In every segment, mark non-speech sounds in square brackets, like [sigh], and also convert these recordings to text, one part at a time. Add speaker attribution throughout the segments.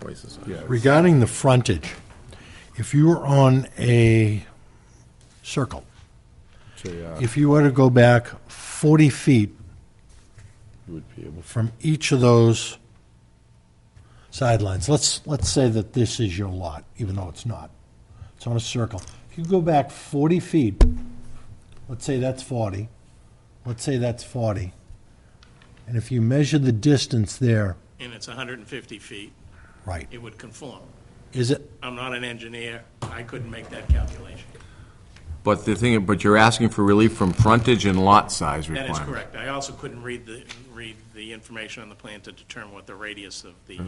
Speaker 1: twice as high.
Speaker 2: Yeah.
Speaker 3: Regarding the frontage, if you were on a circle,
Speaker 2: So, yeah,
Speaker 3: if you were to go back 40 feet
Speaker 2: you would be able,
Speaker 3: from each of those sidelines, let's, let's say that this is your lot, even though it's not. It's on a circle. If you go back 40 feet, let's say that's 40, let's say that's 40, and if you measure the distance there,
Speaker 4: and it's 150 feet,
Speaker 3: right,
Speaker 4: it would conform.
Speaker 3: is it,
Speaker 4: I'm not an engineer, I couldn't make that calculation.
Speaker 1: But the thing, but you're asking for relief from frontage and lot size
Speaker 4: That is
Speaker 1: requirements.
Speaker 4: correct. I also couldn't read the, read the information on the plan to determine what the radius of the, uh,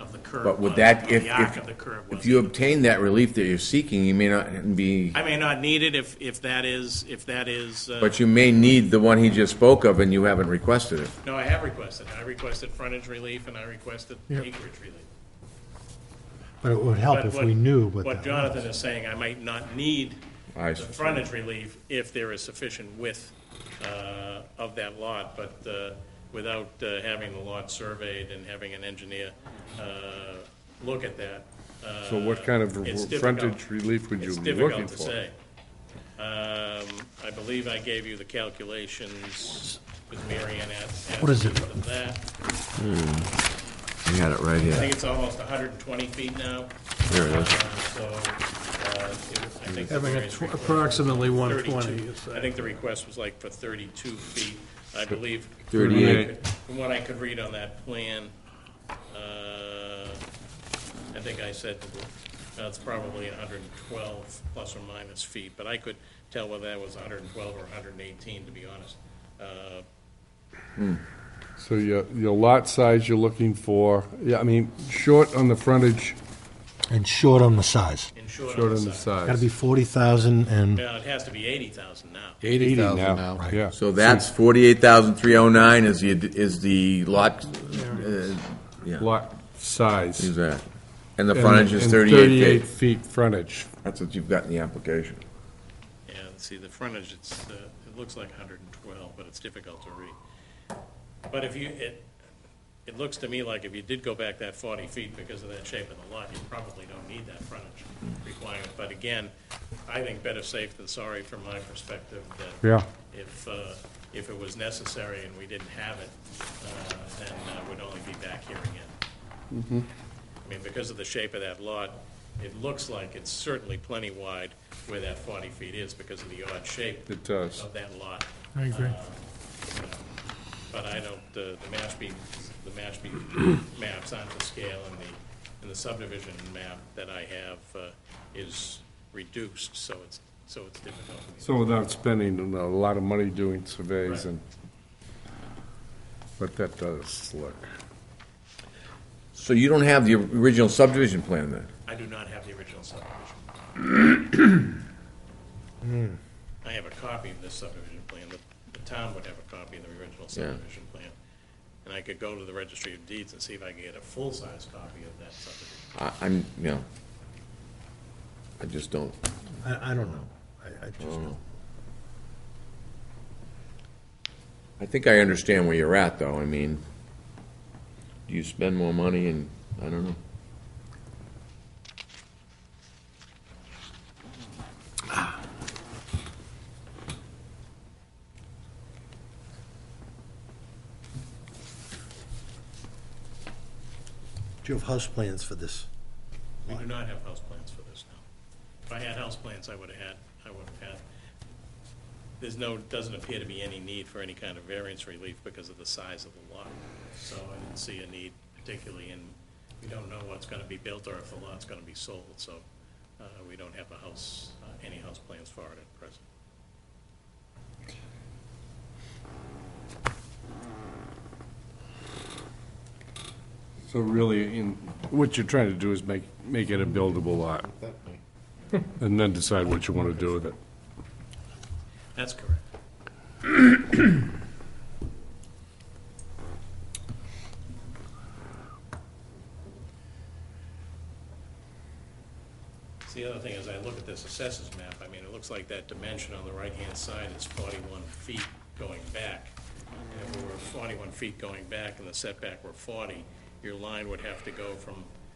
Speaker 4: of the curve
Speaker 1: Oh.
Speaker 4: was.
Speaker 1: But would that,
Speaker 4: or
Speaker 1: if,
Speaker 4: The arc of the
Speaker 1: if,
Speaker 4: curve was.
Speaker 1: if you obtain that relief that you're seeking, you may not be,
Speaker 4: I may not need it if, if that is, if that is, uh,
Speaker 1: but you may need the one he just spoke of and you haven't requested it.
Speaker 4: no, I have requested. I requested frontage relief and I requested acreage relief.
Speaker 3: but it would help
Speaker 4: But
Speaker 3: if we knew what
Speaker 4: What
Speaker 3: that was.
Speaker 4: Jonathan is saying, I might not need
Speaker 1: I
Speaker 4: the
Speaker 1: see.
Speaker 4: frontage relief if there is sufficient width uh, of that lot, but uh, without uh, having the lot surveyed and having an engineer uh, look at that.
Speaker 2: so what kind of
Speaker 4: it's
Speaker 2: r-
Speaker 4: difficult.
Speaker 2: frontage relief would you
Speaker 4: It's
Speaker 2: be looking
Speaker 4: difficult to
Speaker 2: for?
Speaker 4: say. Um, I believe I gave you the calculations with Mary Ann at. at
Speaker 3: What is it?
Speaker 4: of that.
Speaker 1: You had it right
Speaker 4: I
Speaker 1: here.
Speaker 4: think it's almost 120 feet now.
Speaker 1: There it is.
Speaker 4: Uh, So, uh, it was- I think. the
Speaker 5: Having a
Speaker 4: variance
Speaker 5: tw-
Speaker 4: request was
Speaker 5: approximately 120.
Speaker 4: 32.
Speaker 5: is,
Speaker 4: I
Speaker 5: uh,
Speaker 4: think the request was like for 32 feet, I believe.
Speaker 1: 38.
Speaker 4: From what I could read on that plan, uh, I think I said that's probably 112 plus or minus feet, but I could tell whether that was 112 or 118, to be honest. Uh,
Speaker 2: So your, your lot size you're looking for, yeah, I mean, short on the frontage,
Speaker 3: And short on the size.
Speaker 4: In short,
Speaker 2: short
Speaker 4: on
Speaker 2: on the
Speaker 4: the side.
Speaker 3: Got to
Speaker 2: size.
Speaker 3: be 40,000 and,
Speaker 4: Now, it has to be 80,000 now.
Speaker 2: Eighty now, yeah.
Speaker 1: So that's forty-eight thousand three oh nine is the, is the lot, uh,
Speaker 2: Lot size.
Speaker 1: exactly. And the
Speaker 2: And-
Speaker 1: frontage is
Speaker 2: and
Speaker 1: thirty-eight feet.
Speaker 2: feet frontage.
Speaker 1: That's what you've got in the application.
Speaker 4: Yeah, see, the frontage, it's, uh, it looks like 112, but it's difficult to read. But if you, it, it looks to me like if you did go back that 40 feet because of that shape of the lot, you probably don't need that frontage requirement. But again, I think better safe than sorry from my perspective that
Speaker 2: Yeah.
Speaker 4: if, uh, if it was necessary and we didn't have it, uh, then uh, we'd only be back here again. I mean, because of the shape of that lot, it looks like it's certainly plenty wide where that 40 feet is because of the odd shape
Speaker 2: It does.
Speaker 4: of that lot. Uh,
Speaker 5: I agree.
Speaker 4: But I don't, uh, the Mashpee, the Mashpee [coughs] maps aren't the scale and the, and the subdivision map that I have uh, is reduced, so it's, so it's difficult.
Speaker 2: So without spending a lot of money doing surveys and, but that does look.
Speaker 1: So you don't have the original subdivision plan then?
Speaker 4: I do not have the original subdivision.
Speaker 5: Hmm.
Speaker 4: I have a copy of this subdivision plan, the, the town would have a copy of the original subdivision plan. And I could go to the registry of deeds and see if I can get a full-size copy of that subdivision.
Speaker 1: I, I'm, you know, I just don't,
Speaker 3: I, I don't know. I, I just
Speaker 1: I don't
Speaker 3: don't.
Speaker 1: know. I think I understand where you're at, though, I mean, you spend more money and, I don't know.
Speaker 3: Do you have house plans for this?
Speaker 4: We do not have house plans for this now. If I had house plans, I would have had, I would have had. There's no, doesn't appear to be any need for any kind of variance relief because of the size of the lot. So I didn't see a need particularly, and we don't know what's gonna be built or if the lot's gonna be sold, so, uh, we don't have a house, uh, any house plans for it at present.
Speaker 2: So really, in, what you're trying to do is make, make it a buildable lot. And then decide what you want to do with it.
Speaker 4: That's [coughs] correct. So The other thing is, I look at this assessors map, I mean, it looks like that dimension on the right-hand side is forty-one feet going back. And if we were forty-one feet going back and the setback were forty, your line would have to go from